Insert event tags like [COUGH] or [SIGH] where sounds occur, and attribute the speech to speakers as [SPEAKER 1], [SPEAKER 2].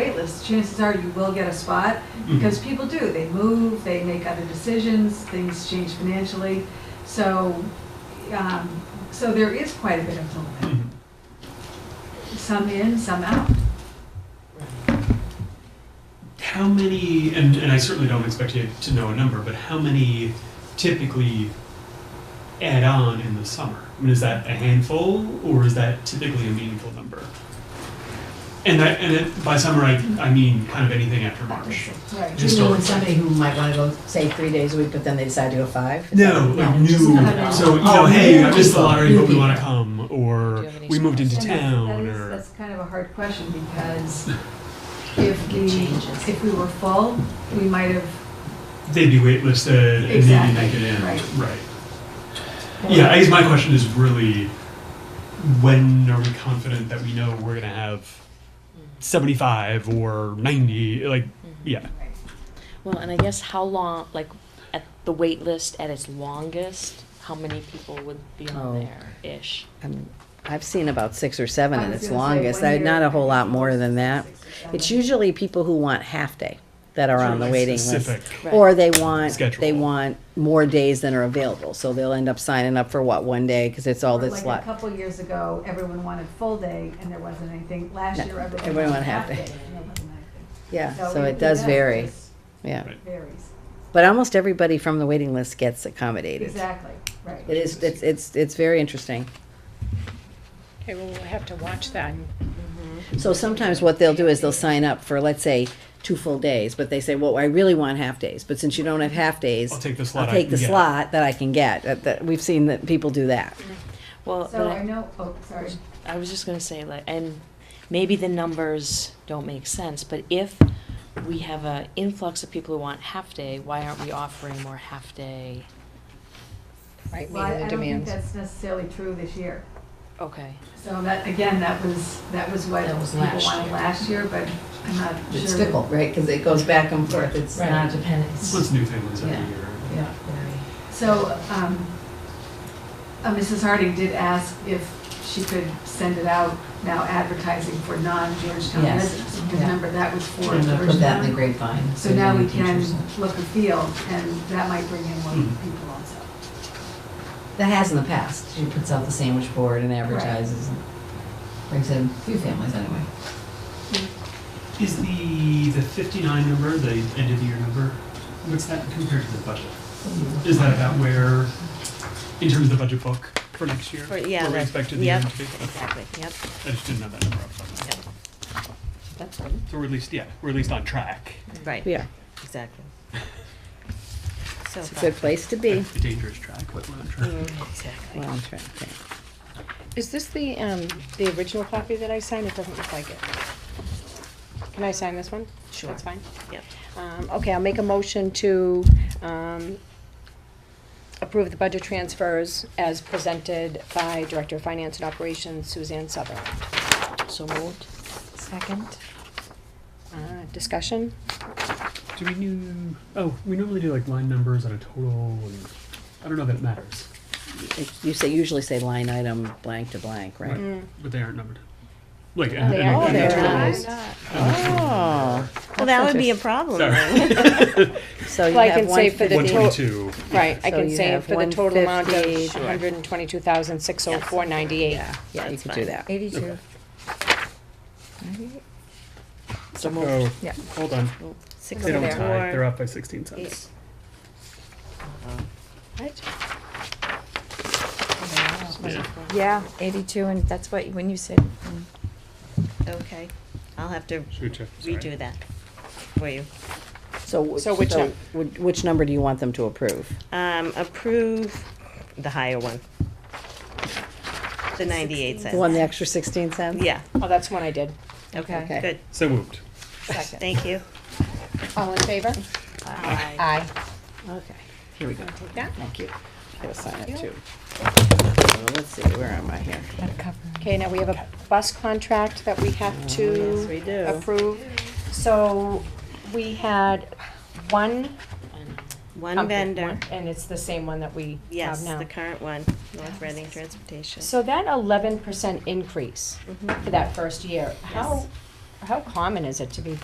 [SPEAKER 1] waitlist, chances are you will get a spot,
[SPEAKER 2] Mhm.
[SPEAKER 1] because people do, they move, they make other decisions, things change financially. So, um, so there is quite a bit of
[SPEAKER 2] Mm-hmm.
[SPEAKER 1] movement, some in, some out.
[SPEAKER 2] How many, and, and I certainly don't expect you to know a number, but how many typically add on in the summer? I mean, is that a handful or is that typically a meaningful number? And that, and it, by summer, I, I mean kind of anything after March.
[SPEAKER 1] Right.
[SPEAKER 3] Do you mean somebody who might wanna go, say, three days a week, but then they decide to go five? Is
[SPEAKER 2] No,
[SPEAKER 3] that-
[SPEAKER 2] like new,
[SPEAKER 1] No.
[SPEAKER 2] so, you
[SPEAKER 3] Oh,
[SPEAKER 2] know, hey,
[SPEAKER 3] new
[SPEAKER 2] I missed the
[SPEAKER 3] people.
[SPEAKER 2] lottery, but we
[SPEAKER 3] New
[SPEAKER 2] wanna
[SPEAKER 3] people.
[SPEAKER 2] come,
[SPEAKER 3] Do you
[SPEAKER 2] or
[SPEAKER 3] have any
[SPEAKER 2] we moved into
[SPEAKER 1] And that- that
[SPEAKER 2] town,
[SPEAKER 1] is-
[SPEAKER 2] or.
[SPEAKER 1] That's kind of a hard question,
[SPEAKER 2] [LAUGHS]
[SPEAKER 1] because if
[SPEAKER 3] It changes.
[SPEAKER 1] the, if we were full, we might have,
[SPEAKER 2] They'd be waitlisted and maybe
[SPEAKER 1] Exactly,
[SPEAKER 2] make it in,
[SPEAKER 1] right.
[SPEAKER 2] right. Yeah, I guess my question is really, when are we confident that we know we're gonna have seventy-five or ninety, like, yeah.
[SPEAKER 4] Well, and I guess how long, like, at the wait list at its longest, how many people would be on
[SPEAKER 5] Oh.
[SPEAKER 4] there ish?
[SPEAKER 5] I'm- I've seen about six or seven
[SPEAKER 1] I
[SPEAKER 5] in
[SPEAKER 1] was
[SPEAKER 5] its
[SPEAKER 1] gonna say,
[SPEAKER 5] longest,
[SPEAKER 1] one
[SPEAKER 5] I-
[SPEAKER 1] year-
[SPEAKER 5] not a whole lot more than that.
[SPEAKER 1] Six or
[SPEAKER 5] It's
[SPEAKER 1] seven.
[SPEAKER 5] usually people who want half-day that are on the
[SPEAKER 2] Like
[SPEAKER 5] waiting list.
[SPEAKER 2] specific.
[SPEAKER 4] Right.
[SPEAKER 5] Or they want, they
[SPEAKER 2] Schedule.
[SPEAKER 5] want more days than are available, so they'll end up signing up for what, one day, because it's all
[SPEAKER 1] Or
[SPEAKER 5] that's
[SPEAKER 1] Like a
[SPEAKER 5] left.
[SPEAKER 1] couple years ago, everyone wanted full day and there wasn't anything. Last
[SPEAKER 5] No,
[SPEAKER 1] year, everyone
[SPEAKER 5] everyone
[SPEAKER 1] wanted half
[SPEAKER 5] half
[SPEAKER 1] day.
[SPEAKER 5] day.
[SPEAKER 1] and there wasn't anything.
[SPEAKER 5] Yeah, so
[SPEAKER 1] it-
[SPEAKER 5] it does
[SPEAKER 1] does,
[SPEAKER 5] vary,
[SPEAKER 1] just
[SPEAKER 5] yeah.
[SPEAKER 2] Right.
[SPEAKER 1] Varies,
[SPEAKER 5] But almost everybody from the waiting list gets accommodated.
[SPEAKER 1] exactly,
[SPEAKER 5] It
[SPEAKER 1] right.
[SPEAKER 5] is, it's, it's, it's very interesting.
[SPEAKER 6] Okay, well, we'll have to watch that.
[SPEAKER 5] So sometimes what they'll do is they'll sign up for, let's say, two full days, but they say, well, I really want half days, but since you don't have half days.
[SPEAKER 2] I'll take the slot
[SPEAKER 5] I'll
[SPEAKER 2] Oh, I
[SPEAKER 5] take
[SPEAKER 2] can
[SPEAKER 5] the
[SPEAKER 2] get.
[SPEAKER 5] slot that I can get, that, that, we've seen that people do that.
[SPEAKER 4] Well, but
[SPEAKER 1] So I
[SPEAKER 4] I,
[SPEAKER 1] know, oh, sorry,
[SPEAKER 4] I was just gonna say, like, and maybe the numbers don't make sense, but if we have a influx of people who want half day, why aren't we offering more half day?
[SPEAKER 3] Right,
[SPEAKER 1] well, I
[SPEAKER 3] meeting
[SPEAKER 1] I
[SPEAKER 3] the
[SPEAKER 1] don't think
[SPEAKER 3] demands.
[SPEAKER 1] that's necessarily true this year.
[SPEAKER 4] Okay.
[SPEAKER 1] So that, again, that was, that was what
[SPEAKER 3] That was
[SPEAKER 1] people
[SPEAKER 3] last
[SPEAKER 1] wanted
[SPEAKER 3] year.
[SPEAKER 1] last year, but I'm not sure.
[SPEAKER 3] It's fickle, right, because it goes back and forth, it's
[SPEAKER 6] Right.
[SPEAKER 3] not dependent. It's-
[SPEAKER 2] What's new things every
[SPEAKER 3] Yeah.
[SPEAKER 2] year?
[SPEAKER 3] Yeah, very.
[SPEAKER 1] So, um, uh, Mrs. Harding did ask if she could send it out now advertising for non-Georgetown
[SPEAKER 3] Yes,
[SPEAKER 1] residents.
[SPEAKER 3] yeah.
[SPEAKER 1] Remember, that was for
[SPEAKER 3] I'm gonna put that in the
[SPEAKER 1] Georgetown.
[SPEAKER 3] grapevine.
[SPEAKER 1] So now
[SPEAKER 3] the
[SPEAKER 1] we can
[SPEAKER 3] teachers Hmm. know.
[SPEAKER 1] look and feel, and that might bring in more
[SPEAKER 2] Mhm.
[SPEAKER 1] people also.
[SPEAKER 3] That has in the past, she puts out the sandwich board and advertises, and brings in a few families anyway.
[SPEAKER 2] Is the, the fifty-nine number, the end of the year number, what's that compared to the budget? Is that about where, in terms of the budget book for next year?
[SPEAKER 4] For- yeah,
[SPEAKER 2] Where we
[SPEAKER 4] that-
[SPEAKER 2] expected the
[SPEAKER 4] yep,
[SPEAKER 2] year to be? Okay.
[SPEAKER 4] Yep.
[SPEAKER 2] I just didn't know that number off the top of my head.
[SPEAKER 4] That's good.
[SPEAKER 2] So we're at least, yeah, we're at least on track.
[SPEAKER 4] Right.
[SPEAKER 5] Yeah, [LAUGHS]
[SPEAKER 4] Exactly.
[SPEAKER 5] it's a good place to be.
[SPEAKER 2] A dangerous track, but we're on track.
[SPEAKER 5] Well,
[SPEAKER 4] Exactly.
[SPEAKER 5] I'm trying to think.
[SPEAKER 6] Is this the, um, the original copy that I signed? It doesn't look like it. Can I sign this one?
[SPEAKER 4] Sure.
[SPEAKER 6] That's fine.
[SPEAKER 4] Yep.
[SPEAKER 6] Um, okay, I'll make a motion to, um, approve the budget transfers as presented by Director of Finance and Operations Suzanne Sutherland.
[SPEAKER 4] So moved.
[SPEAKER 6] Second. Uh, discussion?
[SPEAKER 2] Do we do? Oh, we normally do like line numbers on a total, and I don't know that it matters,
[SPEAKER 5] It- You say, usually say line item blank to blank, right?
[SPEAKER 2] but they aren't numbered. Like,
[SPEAKER 6] Oh, They
[SPEAKER 2] and,
[SPEAKER 6] are
[SPEAKER 2] and
[SPEAKER 6] there.
[SPEAKER 2] that's what it
[SPEAKER 6] They're
[SPEAKER 2] is.
[SPEAKER 5] Oh.
[SPEAKER 6] not.
[SPEAKER 4] Well, that would be a problem.
[SPEAKER 6] [LAUGHS]
[SPEAKER 2] Sorry,
[SPEAKER 5] So you
[SPEAKER 6] Well, I
[SPEAKER 5] have
[SPEAKER 6] can
[SPEAKER 5] one
[SPEAKER 6] say for the
[SPEAKER 2] one
[SPEAKER 6] to-
[SPEAKER 5] fifty,
[SPEAKER 2] twenty-two.
[SPEAKER 6] Right, I
[SPEAKER 5] So
[SPEAKER 6] can
[SPEAKER 5] you
[SPEAKER 6] say
[SPEAKER 5] have
[SPEAKER 6] for the total amount of
[SPEAKER 5] 150. Sure.
[SPEAKER 6] hundred and twenty-two thousand, six oh four ninety-eight.
[SPEAKER 5] yeah, yeah, you
[SPEAKER 4] That's
[SPEAKER 5] could do
[SPEAKER 4] fine.
[SPEAKER 5] that.
[SPEAKER 2] Okay.
[SPEAKER 7] Eighty-two.
[SPEAKER 2] So oh,
[SPEAKER 7] Yeah.
[SPEAKER 2] Hold on,
[SPEAKER 7] Six
[SPEAKER 2] they don't
[SPEAKER 7] there.
[SPEAKER 2] tie. They're up by sixteen cents.
[SPEAKER 5] Uh-huh.
[SPEAKER 6] Right?
[SPEAKER 2] Yeah.
[SPEAKER 7] Yeah, eighty-two, and that's what, when you said, mm,
[SPEAKER 8] Okay, I'll have to
[SPEAKER 2] Should we check? Sorry.
[SPEAKER 8] redo that for you.
[SPEAKER 5] So,
[SPEAKER 6] So which
[SPEAKER 5] so
[SPEAKER 6] num-
[SPEAKER 5] which, which number do you want them to approve?
[SPEAKER 8] Um, approve the higher one. The ninety-eight
[SPEAKER 5] The one,
[SPEAKER 8] cents.
[SPEAKER 5] the extra sixteen cents?
[SPEAKER 8] Yeah,
[SPEAKER 6] Oh, that's one I did.
[SPEAKER 7] okay.
[SPEAKER 5] Okay.
[SPEAKER 8] good,
[SPEAKER 2] So moved.
[SPEAKER 7] Second.
[SPEAKER 8] thank you.
[SPEAKER 6] All in favor?
[SPEAKER 7] Aye.
[SPEAKER 5] Okay, here we go.
[SPEAKER 6] Take that.
[SPEAKER 5] Thank you. Gotta sign it too. So let's see, where am I here?
[SPEAKER 7] Gotta cover.
[SPEAKER 6] Okay, now we have a bus contract that we have
[SPEAKER 5] Yes,
[SPEAKER 6] to
[SPEAKER 5] we do.
[SPEAKER 6] approve. So we had one.
[SPEAKER 8] One
[SPEAKER 6] company,
[SPEAKER 8] vendor,
[SPEAKER 6] one- And it's the same one that we have
[SPEAKER 8] yes,
[SPEAKER 6] now.
[SPEAKER 8] the current one, North Reading Transportation. Mm-hmm.
[SPEAKER 6] So that eleven percent increase for that first year, how, how common is it to be